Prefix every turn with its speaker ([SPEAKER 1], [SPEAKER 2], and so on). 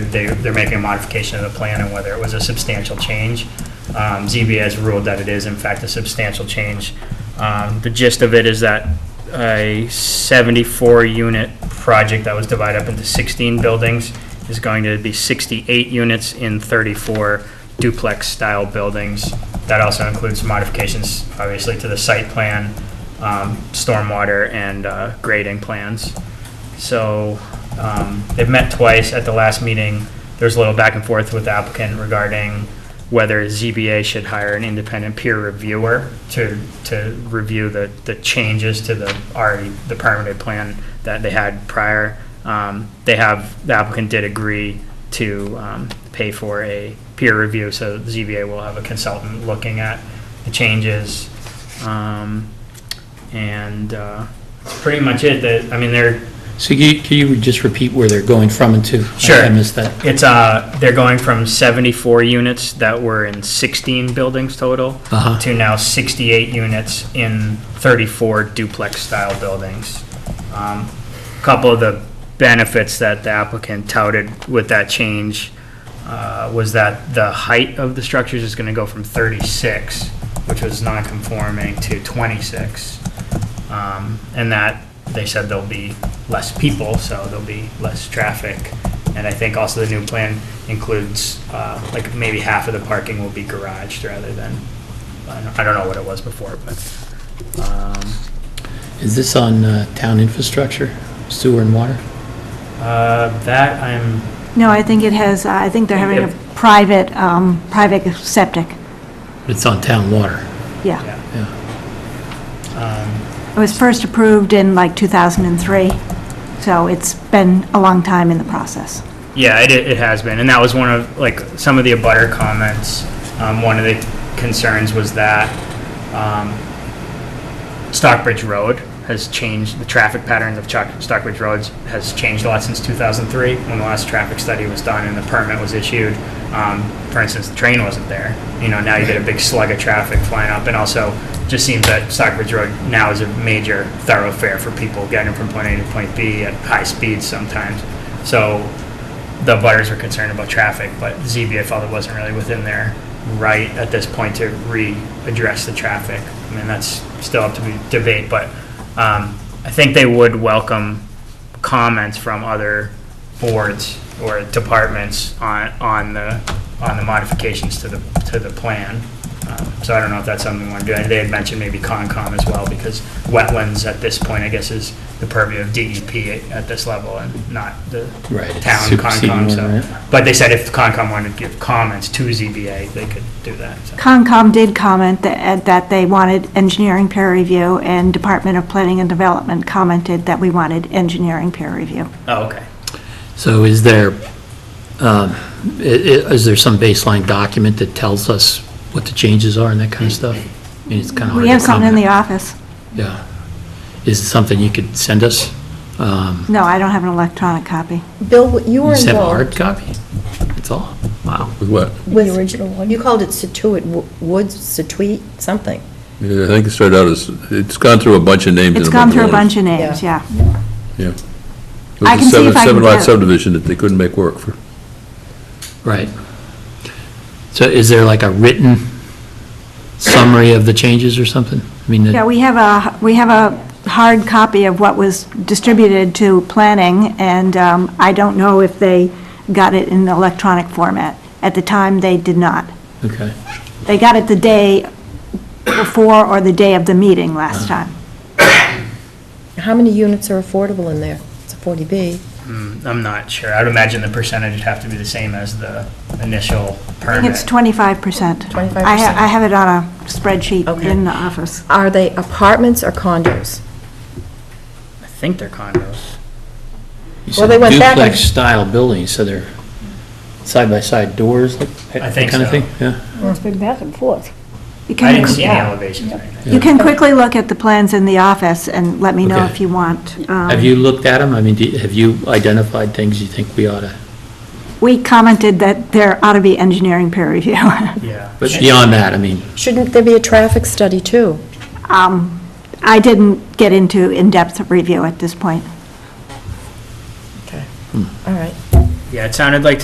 [SPEAKER 1] they're, they're making a modification of the plan and whether it was a substantial change. Um, ZBA has ruled that it is in fact a substantial change. Um, The gist of it is that a 74-unit project that was divided up into 16 buildings is going to be 68 units in 34 duplex-style buildings. That also includes modifications, obviously, to the site plan, um, stormwater, and uh, grading plans. So um, they've met twice. At the last meeting, there was a little back and forth with the applicant regarding whether ZBA should hire an independent peer reviewer to, to review the, the changes to the already, the permitted plan that they had prior. Um, They have, the applicant did agree to um, pay for a peer review, so ZBA will have a consultant looking at the changes. Um, And uh, that's pretty much it. That, I mean, they're,
[SPEAKER 2] So you- can you just repeat where they're going from and to? I-
[SPEAKER 1] Sure.
[SPEAKER 2] I missed that.
[SPEAKER 1] It's, uh, they're going from 74 units that were in 16 buildings total
[SPEAKER 2] Uh-huh.
[SPEAKER 1] to now 68 units in 34 duplex-style buildings. Um, Couple of the benefits that the applicant touted with that change uh, was that the height of the structures is going to go from 36, which was non-conforming, to 26. Um, And that, they said there'll be less people, so there'll be less traffic. And I think also the new plan includes, uh, like, maybe half of the parking will be garaged rather than, I don't- I don't know what it was before, but, um,
[SPEAKER 2] Is this on uh, town infrastructure, sewer and water?
[SPEAKER 1] uh, that I'm,
[SPEAKER 3] No, I think it has, uh, I think they're having
[SPEAKER 1] Yep.
[SPEAKER 3] a private, um, private septic,
[SPEAKER 2] It's on town water,
[SPEAKER 3] yeah.
[SPEAKER 1] yeah.
[SPEAKER 2] yeah.
[SPEAKER 1] Um,
[SPEAKER 3] It was first approved in like 2003, so it's been a long time in the process.
[SPEAKER 1] Yeah, it, it has been, and that was one of, like, some of the abutter comments. Um, one of the concerns was that, um, Stockbridge Road has changed, the traffic patterns of Chalk- Stockbridge Roads has changed a lot since 2003, when the last traffic study was done and the permit was issued. Um, For instance, the train wasn't there. You know, now you get a big slug of traffic flying up, and also, just seems that Stockbridge Road now is a major thoroughfare for people getting from point A to point B at high speeds sometimes. So the butters were concerned about traffic, but ZBA felt it wasn't really within their right at this point to re-address the traffic. I mean, that's still up to be debate, but um, I think they would welcome comments from other boards or departments on, on the, on the modifications to the, to the plan. Um, So I don't know if that's something we want to do. And they had mentioned maybe Concom as well, because wetlands at this point, I guess, is the purview of DEP at this level and not the
[SPEAKER 2] Right. it's
[SPEAKER 1] town
[SPEAKER 2] superseding
[SPEAKER 1] Concom,
[SPEAKER 2] one,
[SPEAKER 1] so.
[SPEAKER 2] right?
[SPEAKER 1] But they said if Concom wanted to give comments to ZBA, they could do that, so.
[SPEAKER 3] Concom did comment that, uh, that they wanted engineering peer review, and Department of Planning and Development commented that we wanted engineering peer review.
[SPEAKER 1] Oh, okay.
[SPEAKER 2] So is there, um, i- i- is there some baseline document that tells us what the changes are and that kind of stuff? I mean, it's kind of hard to
[SPEAKER 3] We have something in the
[SPEAKER 2] comment.
[SPEAKER 3] office.
[SPEAKER 2] Yeah. Is it something you could send us? Um,
[SPEAKER 3] No, I don't have an electronic copy.
[SPEAKER 4] Bill, you
[SPEAKER 2] You
[SPEAKER 4] were
[SPEAKER 2] just have a hard
[SPEAKER 4] involved
[SPEAKER 2] copy? That's all? Wow.
[SPEAKER 5] With what?
[SPEAKER 4] with
[SPEAKER 6] The original one.
[SPEAKER 4] You called it Situate Wo- Woods, Situate, something.
[SPEAKER 5] Yeah, I think it started out as, it's gone through a bunch of names.
[SPEAKER 3] It's gone through a bunch of names, yeah. I can see if I can
[SPEAKER 5] Seven lot
[SPEAKER 3] get-
[SPEAKER 5] subdivision that they couldn't make work for.
[SPEAKER 2] Right. So is there like a written summary of the changes or something? I mean,
[SPEAKER 3] Yeah,
[SPEAKER 2] the-
[SPEAKER 3] we have a, we have a hard copy of what was distributed to planning, and um, I don't know if they got it in electronic format. At the time, they did not.
[SPEAKER 2] okay.
[SPEAKER 3] They got it the day before or the day of the meeting last time.
[SPEAKER 4] How many units are affordable in there? It's a 40B.
[SPEAKER 1] Mm, I'm not sure. I'd imagine the percentage would have to be the same as the initial
[SPEAKER 3] I think it's
[SPEAKER 1] permit.
[SPEAKER 3] 25%.
[SPEAKER 4] 25%.
[SPEAKER 3] I ha- I have it on a spreadsheet
[SPEAKER 4] Okay.
[SPEAKER 3] in the office.
[SPEAKER 4] Are they apartments or condos?
[SPEAKER 1] I think they're condos.
[SPEAKER 2] You
[SPEAKER 4] Well,
[SPEAKER 2] said
[SPEAKER 4] they went back and-
[SPEAKER 2] Duplex-style buildings, so they're side-by-side doors, like,
[SPEAKER 1] I
[SPEAKER 2] that
[SPEAKER 1] think
[SPEAKER 2] kind of
[SPEAKER 1] so.
[SPEAKER 2] thing? Yeah.
[SPEAKER 6] It's been back and forth.
[SPEAKER 3] You
[SPEAKER 1] I
[SPEAKER 3] can,
[SPEAKER 1] didn't see any
[SPEAKER 6] Yeah.
[SPEAKER 1] elevations or anything.
[SPEAKER 3] you can quickly look at the plans in the office and let me know
[SPEAKER 2] Okay.
[SPEAKER 3] if you want. um,
[SPEAKER 2] Have you looked at them? I mean, do- have you identified things you think we ought to,
[SPEAKER 3] We commented that there ought to be engineering peer review.
[SPEAKER 1] Yeah.
[SPEAKER 2] but beyond that, I mean,
[SPEAKER 4] Shouldn't there be a traffic study, too?
[SPEAKER 3] Um, I didn't get into in-depth review at this point.
[SPEAKER 4] All right.
[SPEAKER 1] Yeah, it sounded like